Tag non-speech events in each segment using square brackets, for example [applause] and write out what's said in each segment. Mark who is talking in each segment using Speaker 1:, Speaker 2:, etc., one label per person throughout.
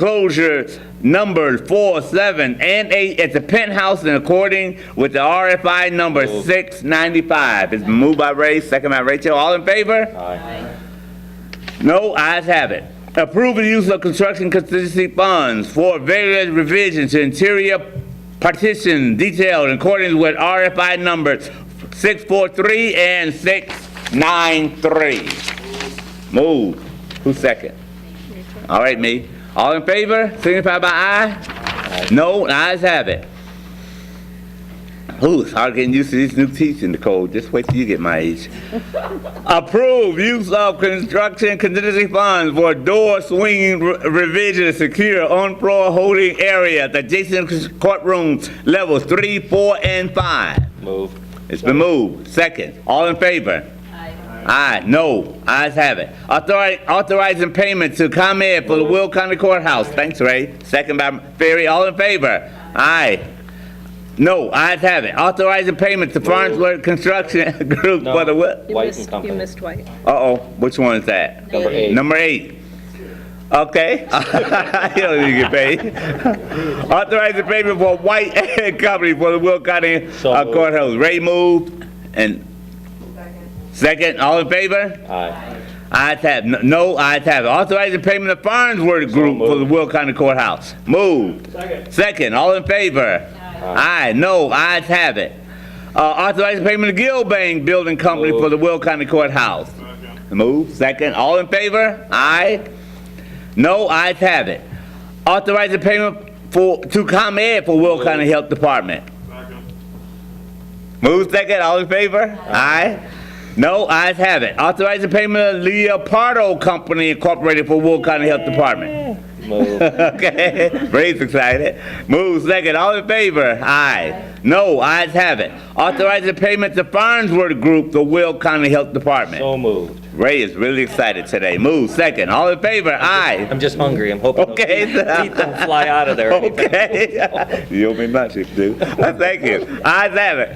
Speaker 1: enclosure number four, seven, and eight at the penthouse in according with the RFI number six ninety-five. It's been moved by Ray, second by Rachel. All in favor? No, ayes have it. Approve the use of construction contingency funds for various revisions to interior partition detailed in accordance with RFI numbers 643 and 693. Move. Who's second? All right, me. All in favor, signify by aye. No, ayes have it. Ooh, it's hard getting used to this new teaching, Nicole. Just wait till you get my age. Approve use of construction contingency funds for door swinging re- revision to secure on-floor holding area at adjacent courtroom levels three, four, and five.
Speaker 2: Move.
Speaker 1: It's been moved. Second. All in favor? Aye. No. Ayes have it. Authori- Authorizing payment to ComEd for the Will County Courthouse. Thanks, Ray. Second by Ferry. All in favor? Aye. No. Ayes have it. Authorizing payment to Farnsworth Construction [laughs] Group for the Will.
Speaker 3: You
Speaker 2: White and
Speaker 3: missed-
Speaker 2: Company.
Speaker 3: You missed White.
Speaker 1: Uh-oh. Which one is that?
Speaker 2: Number eight.
Speaker 1: Number eight. Okay. [laughs] you don't need to get
Speaker 2: [laughs]
Speaker 1: paid. Authorize the payment for White [laughs] and Company for the Will County
Speaker 2: So
Speaker 1: uh,
Speaker 2: moved.
Speaker 1: Courthouse. Ray moved and second. All in favor?
Speaker 2: Aye.
Speaker 1: Ayes have. it. No, ayes have. it. Authorize the payment of Farnsworth Group for the
Speaker 2: moved.
Speaker 1: Will County Courthouse. Moved. Second. Second. All in favor? Aye. No, ayes have it. Uh, authorize the payment of Gilbane Building Company for
Speaker 2: Moved.
Speaker 1: the Will County Courthouse. Move, second, all in favor? Aye. No, ayes have it. Authorize the payment for, to ComEd for Will County Health Department. Move, second, all in favor? Aye. No, ayes have it. Authorize the payment of Leopardo Company Incorporated for Will County Health Department. [laughs]
Speaker 2: Move.
Speaker 1: Okay, Ray's excited. Move, second, all in favor? Aye. No, ayes have it. Authorize the payment to Farnsworth Group, the Will County Health Department.
Speaker 2: So moved.
Speaker 1: Ray is really excited today. Move second. All in favor? Aye.
Speaker 2: I'm just hungry. I'm hoping those
Speaker 1: Okay. Oh.
Speaker 2: teeth teeth don't fly out of there. or anything.
Speaker 1: [laughs] Okay. you owe me much, if you do. Uh, Thank you. Ayes have it.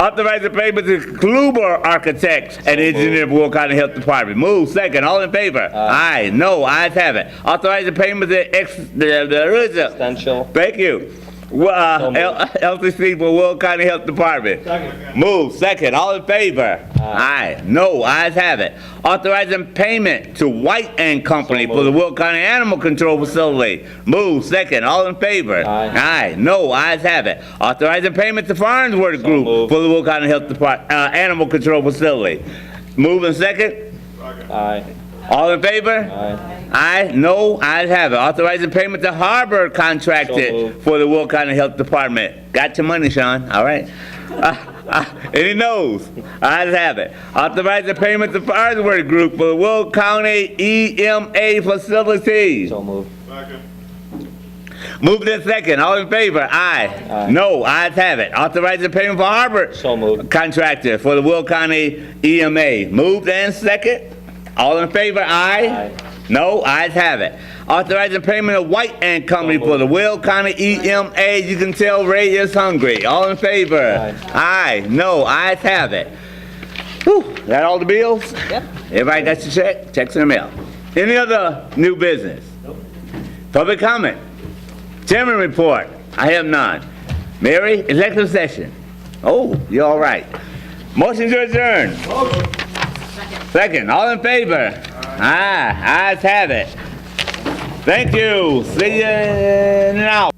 Speaker 1: [laughs] Authorize the payment to Kluber Architects and Engineer of Will County Health Department. Move second. All in favor? Aye. No. Ayes have it. Authorize the payment to ex. The, the, the,
Speaker 2: Essential.
Speaker 1: thank you. Well,
Speaker 2: So
Speaker 1: Uh,
Speaker 2: moved.
Speaker 1: [laughs] L- LCC for Will County Health Department. Move, second, all in favor? Aye. No, ayes have it. Authorizing payment to White and Company for the Will County Animal Control Facility. Move, second, all in favor?
Speaker 2: Aye.
Speaker 1: Aye, no, ayes have it. Authorizing payment to Farnsworth Group
Speaker 2: moved.
Speaker 1: for the Will County Health Depart, uh, Animal Control Facility. Move and second,
Speaker 2: Aye.
Speaker 1: all in favor?
Speaker 2: Aye.
Speaker 1: Aye, no, ayes have it. Authorizing payment to Harbor
Speaker 2: So
Speaker 1: contracted
Speaker 2: moved.
Speaker 1: for the Will County Health Department. Got your money, Sean, all
Speaker 2: [laughs]
Speaker 1: right? Uh, uh, Any noes? Ayes have it. Authorizing payment to Farnsworth Group for the Will County EMA facilities.
Speaker 2: So moved.
Speaker 1: Moved in second, all in favor? Aye.
Speaker 2: Aye.
Speaker 1: No, ayes have it. Authorizing payment for Harbor
Speaker 2: So moved.
Speaker 1: contractor for the Will County E EMA. Moved and second. All in favor, aye?
Speaker 2: Aye.
Speaker 1: No, ayes have it. Authorizing payment of White and Company for the Will County E EMA. You can tell Ray is hungry. All in favor? Aye. No, ayes have it. Whew, that all the bills?
Speaker 3: Yep.
Speaker 1: Everybody got your check? Checks in the mail. Any other new business? Public comment? Chairman report? I have none. Mary, executive session? Oh, you're all right. Motion to adjourn? Second, all in favor? Aye, ayes have it. Thank you. See you now.